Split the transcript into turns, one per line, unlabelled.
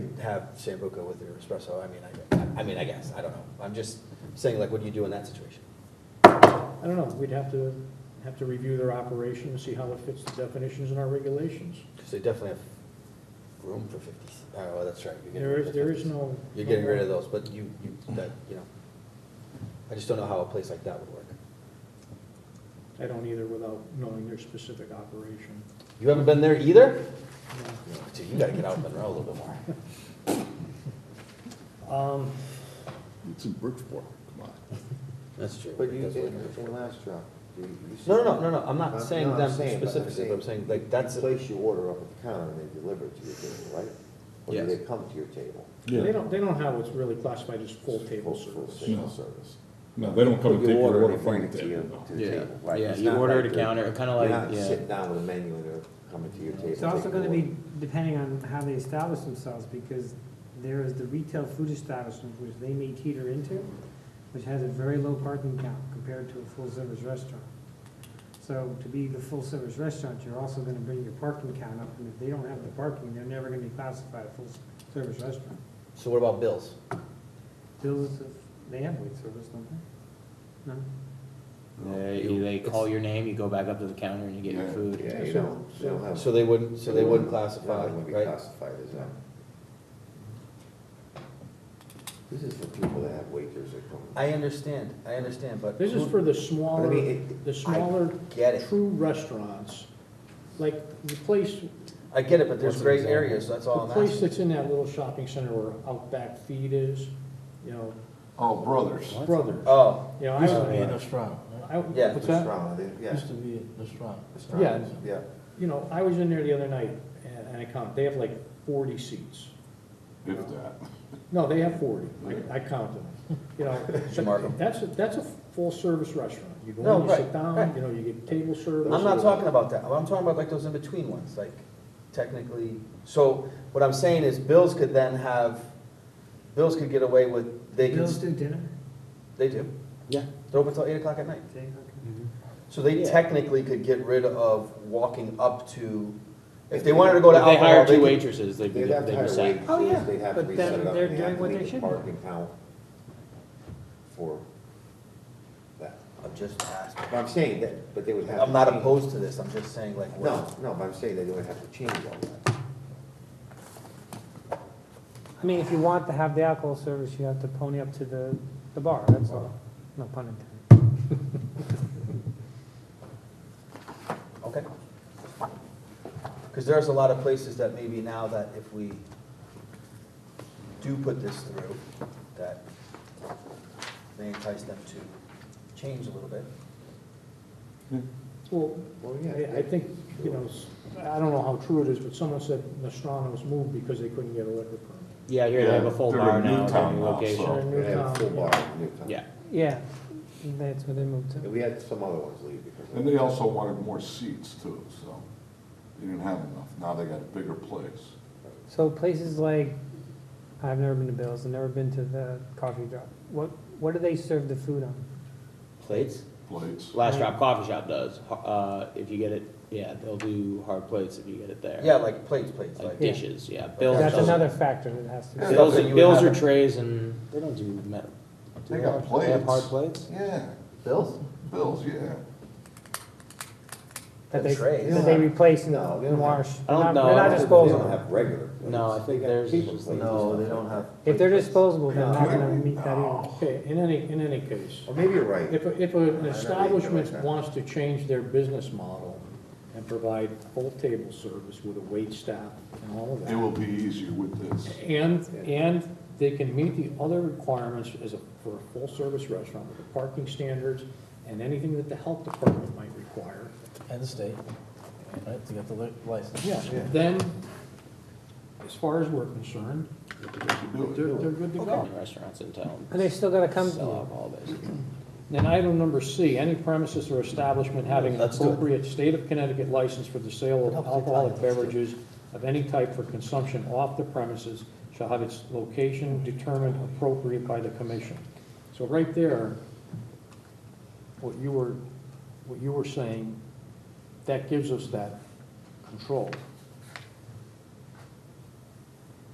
have Sambuca with your espresso, I mean, I, I mean, I guess, I don't know. I'm just saying, like, what do you do in that situation?
I don't know, we'd have to, have to review their operation and see how it fits the definitions in our regulations.
Because they definitely have room for fifty, oh, well, that's right. you're getting
There
rid
is,
of
there
50s.
is no.
You're getting rid of those, but you, you, that, you know, I just don't know how a place like that would work.
I don't either without knowing their specific operation.
You haven't been there either?
No.
Dude, you gotta get out of Monroe a little bit more.
Um,
It's in Bridgeport, come on.
That's true.
But you
That's
did
what-
with your last job. You- you
No, no,
said-
no, no, no, I'm not saying
I'm
them
saying, but I'm
specifically, but I'm saying, like, that's,
You
a-
place your order up at the counter and they deliver it to your table, right? Or do
Yes.
they come to your table?
They don't, they don't have what's really classified as full table
Full- full
service.
table
No.
service.
No, they don't come and
Put
take your
they
order from
bring
the
it to you,
table.
to the
Yeah.
table, right?
Yeah,
It's
you
not
order at
like
a
they're-
counter, kinda like-
You're
yeah.
not sitting down with a menu and they're coming to your table.
It's also
taking
gonna
your
be depending on how they establish themselves, because there is the retail food establishment, which they may teeter into, which has a very low parking count compared to a full-service restaurant. So to be the full-service restaurant, you're also gonna bring your parking count up, and if they don't have the parking, they're never gonna be classified a full-service restaurant.
so what about bills?
Bills, they have wait service, don't they? No?
They, you- they call your name, you go back up to the counter and you get your
Yeah,
food.
Yeah, you don't, you don't have.
So they wouldn't, so they wouldn't
No,
classify,
they Oh. wouldn't be
right?
classified as that. This is for people that have waiters that come.
I understand, I understand, but.
This is for the smaller,
I mean, it-
the smaller,
Get it,
true restaurants, like the place,
I get it, but there's
What's an
gray
example?
areas, that's
the
all I'm
place
asking.
that's in that little shopping center where Outback Feed is, you know,
Oh, brothers.
Brothers.
Oh,
You know,
Used to be
I,
in restaurant, right?
I,
Yeah.
What's that?
Restaurant, they- Yeah,
Used to be in restaurant.
yeah,
yeah.
you know, I was in there the other night and and I count, they have like forty seats.
If that.
No, they have forty, I, I count them, you know.
you mark 'em?
That's, a- that's a full-service restaurant. You
No,
go in, you sit
right, right.
down, you know, you get table service.
I'm not talking about that, I'm talking about like those in-between ones, like technically, so what I'm saying is bills could then have, bills could get away with, they
Bills
could,
do dinner?
they do.
Yeah.
They're open till eight o'clock at night.
Okay.
So they
Yeah.
technically could get rid of walking up to, if they wanted to go to
If they
alcohol,
hired
they
two
could.
waitresses, they'd be,
They'd have
they'd
to
be
hire
set.
waitresses,
Oh, yeah,
they'd have to
but
be
then
set up,
they're
and they have
doing
to
what they
leave the
should do.
parking count for that.
I'm just asking,
But I'm saying that, but they would have.
I'm
to
not
change-
opposed to this, I'm just saying like, what-
No, no, but I'm saying that they would have to change all that.
I mean, if you want to have the alcohol service, you have to pony up to the, the bar, that's all. No pun intended.
okay? Because there's a lot of places that maybe now that if we do put this through, that may entice them to change a little bit.
Well,
Well,
I, I think, you know, s- I don't know how true it is, but someone said Nostrano's moved because they couldn't get a liquor permit.
Yeah, here they have a full
They're
bar
in
now, they're
Newtown
in
now, so-
location.
They're in
They had a
Newtown,
full
yeah.
bar in Newtown.
Yeah,
Yeah, that's where they moved
And
to.
we had some other ones leave because. of
And
that.
they also wanted more seats too, so they didn't have enough. Now they got a bigger place.
So places like, I've never been to Bill's, I've never been to the coffee drop. What, what do they serve the food on?
plates?
Plates.
Last Drop Coffee Shop does, uh, if you get it, yeah, they'll do hard plates if you get it there.
Yeah, like plates, plates,
Like
like,
Yeah.
dishes, yeah, bills,
That's
does-
another factor that has to be.
bills,
Something you would
bills or
have-
trays and, they don't do metal. do
They got
have- They have hard
plates.
plates?
Yeah,
bills?
bills, yeah.
That they,
The trays.
that they replace and
No, they don't have-
wash.
I don't
They're not-
know.
They're
I
not
don't
They
disposable.
don't have regular.
No, I
plates.
think
They got
theirs is
people
just
plates.
like-
No, they don't have.
If they're
plates.
disposable, they're
No.
not gonna meet that either.
No.
Okay, in any, in any case,
Or maybe you're right.
if, a- if an
know,
establishment
they-
wants to change their business model and provide full table service with a wait staff and all of
It
that,
will be easier with this.
and, and they can meet the other requirements as a, for a full-service restaurant with the parking standards and anything that the health department might require,
And the state, right, to get the li- license.
Yeah,
Yeah.
then, as far as we're concerned, they're,
Do it.
they're good to go.
Many restaurants in town
And they still gotta come to
sell
you.
alcohol, basically.
Then item number C, any premises or establishment having an
Let's do it.
appropriate state of Connecticut license for the sale of alcoholic beverages of any type for consumption off the premises shall have its location determined appropriate by the commission. So right there, what you were, what you were saying, that gives us that control.